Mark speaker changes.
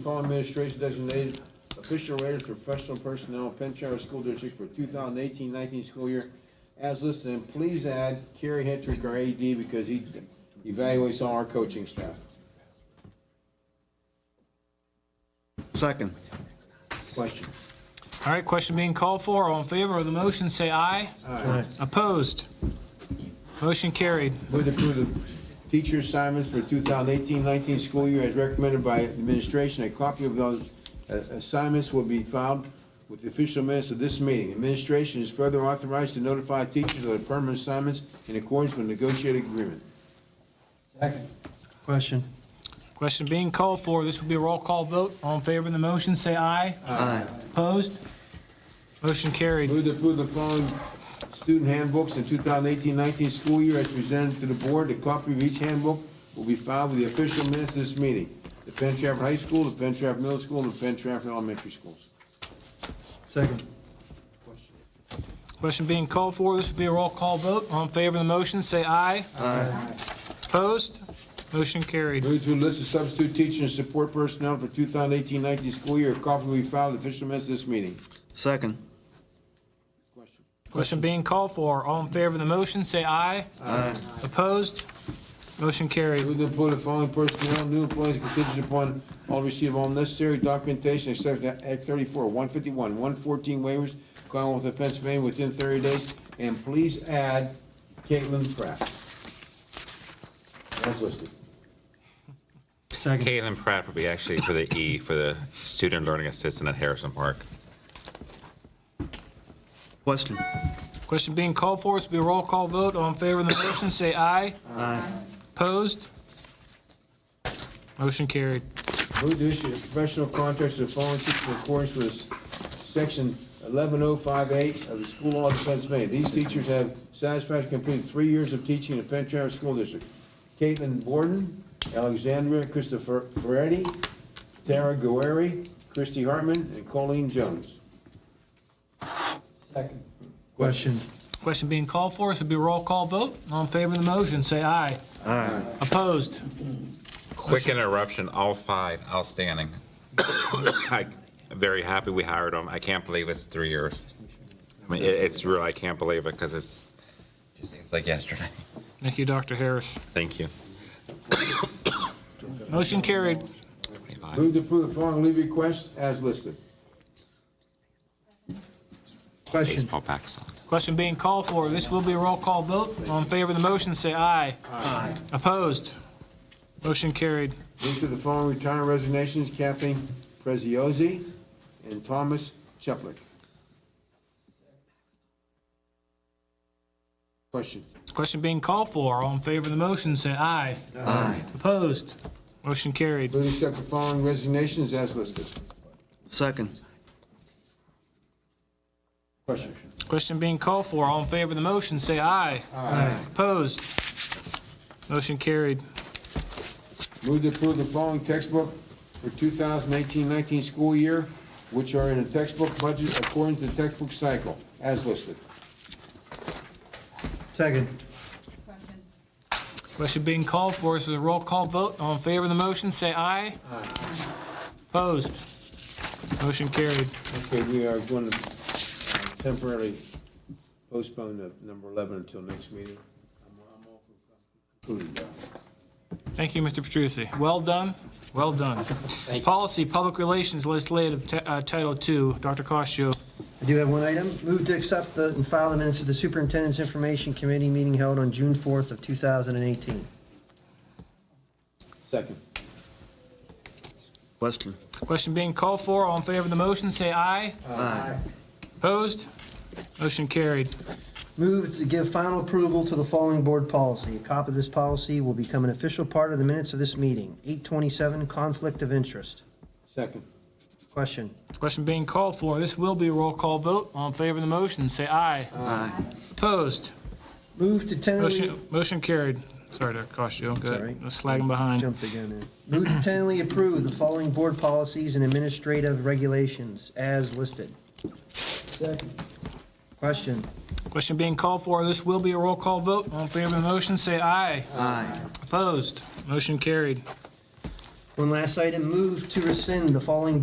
Speaker 1: Fall administration designated official rated for professional personnel in Penchar School District for 2018-19 school year as listed. And please add Kerry Hetrick, our AD, because he evaluates all our coaching staff.
Speaker 2: Second.
Speaker 1: Question?
Speaker 3: All right, question being called for. All in favor of the motion, say aye.
Speaker 1: Aye.
Speaker 3: Opposed? Motion carried.
Speaker 1: Move to approve the teacher assignments for 2018-19 school year as recommended by administration. A copy of those uh, assignments will be filed with the official minutes of this meeting. Administration is further authorized to notify teachers of the permanent assignments in accordance with negotiated agreement.
Speaker 2: Question.
Speaker 3: Question being called for. This will be a roll call vote. All in favor of the motion, say aye.
Speaker 2: Aye.
Speaker 3: Opposed? Motion carried.
Speaker 1: Move to approve the following student handbooks in 2018-19 school year as presented to the board. A copy of each handbook will be filed with the official minutes of this meeting. The Penn Trafford High School, the Penn Trafford Middle School, and the Penn Trafford Elementary Schools.
Speaker 2: Second.
Speaker 3: Question being called for. This will be a roll call vote. All in favor of the motion, say aye.
Speaker 2: Aye.
Speaker 3: Opposed? Motion carried.
Speaker 1: Move to list of substitute teaching and support personnel for 2018-19 school year. A copy will be filed with the official minutes of this meeting.
Speaker 2: Second.
Speaker 1: Question?
Speaker 3: Question being called for. All in favor of the motion, say aye.
Speaker 2: Aye.
Speaker 3: Opposed? Motion carried.
Speaker 1: Move to approve the following personnel, new employees contingent upon all receive all necessary documentation except Act thirty-four, one fifty-one, one fourteen waivers, Commonwealth of Pennsylvania within thirty days, and please add Caitlin Pratt. That's listed.
Speaker 2: Second.
Speaker 4: Caitlin Pratt would be actually for the E, for the Student Learning Assistant at Harrison Park.
Speaker 2: Question.
Speaker 3: Question being called for. This will be a roll call vote. All in favor of the motion, say aye.
Speaker 2: Aye.
Speaker 3: Opposed? Motion carried.
Speaker 1: Move to issue professional contracts to the following teachers in accordance with section eleven oh five eight of the School Law of Pennsylvania. These teachers have satisfactorily completed three years of teaching in the Penn Trafford School District. Caitlin Borden, Alexandria Christopher Ferretti, Tara Guerri, Christy Hartman, and Colleen Jones. Second.
Speaker 2: Question.
Speaker 3: Question being called for, this will be a roll call vote. All in favor of the motion, say aye.
Speaker 2: Aye.
Speaker 3: Opposed?
Speaker 4: Quick interruption, all five outstanding. I'm very happy we hired them. I can't believe it's three years. I mean, it- it's real, I can't believe it because it's, just seems like yesterday.
Speaker 3: Thank you, Dr. Harris.
Speaker 4: Thank you.
Speaker 3: Motion carried.
Speaker 1: Move to approve the following leave requests as listed.
Speaker 2: Question.
Speaker 4: Baseball Pakistan.
Speaker 3: Question being called for, this will be a roll call vote. All in favor of the motion, say aye. Aye. Opposed? Motion carried.
Speaker 1: Move to the following retirement resignations, Kathleen Preziosi and Thomas Cheplick. Question.
Speaker 3: Question being called for, all in favor of the motion, say aye.
Speaker 2: Aye.
Speaker 3: Opposed? Motion carried.
Speaker 1: Move to accept the following resignations as listed.
Speaker 2: Second.
Speaker 1: Question.
Speaker 3: Question being called for, all in favor of the motion, say aye.
Speaker 2: Aye.
Speaker 3: Opposed? Motion carried.
Speaker 1: Move to approve the following textbook for 2018-19 school year, which are in a textbook budget according to the textbook cycle, as listed.
Speaker 2: Second.
Speaker 5: Question.
Speaker 3: Question being called for, this is a roll call vote. All in favor of the motion, say aye. Aye. Opposed? Motion carried.
Speaker 1: Okay, we are going to temporarily postpone the number 11 until next meeting. Concluding that.
Speaker 3: Thank you, Mr. Petrusi. Well done, well done. Policy, Public Relations, Legislative Ti- uh, Title II, Dr. Costo.
Speaker 6: I do have one item. Move to accept the, and file the minutes of the Superintendent's Information Committee meeting held on June 4th of 2018.
Speaker 1: Second.
Speaker 2: Question.
Speaker 3: Question being called for, all in favor of the motion, say aye.
Speaker 2: Aye.
Speaker 3: Opposed? Motion carried.
Speaker 6: Move to give final approval to the following board policy. A copy of this policy will become an official part of the minutes of this meeting. 827, conflict of interest.
Speaker 1: Second.
Speaker 6: Question.
Speaker 3: Question being called for, this will be a roll call vote. All in favor of the motion, say aye.
Speaker 2: Aye.
Speaker 3: Opposed?
Speaker 6: Move to tentatively,
Speaker 3: Motion motion carried. Sorry, Dr. Costo, go
Speaker 6: all
Speaker 3: ahead.
Speaker 6: right.
Speaker 3: I was Slagging behind.
Speaker 6: jumped again in. Move to tentatively approve the following board policies and administrative regulations as listed.
Speaker 1: Second.
Speaker 6: Question.
Speaker 3: Question being called for, this will be a roll call vote. All in favor of the motion, say aye.
Speaker 2: Aye.
Speaker 3: Opposed? Motion carried.
Speaker 6: One last item, move to rescind the following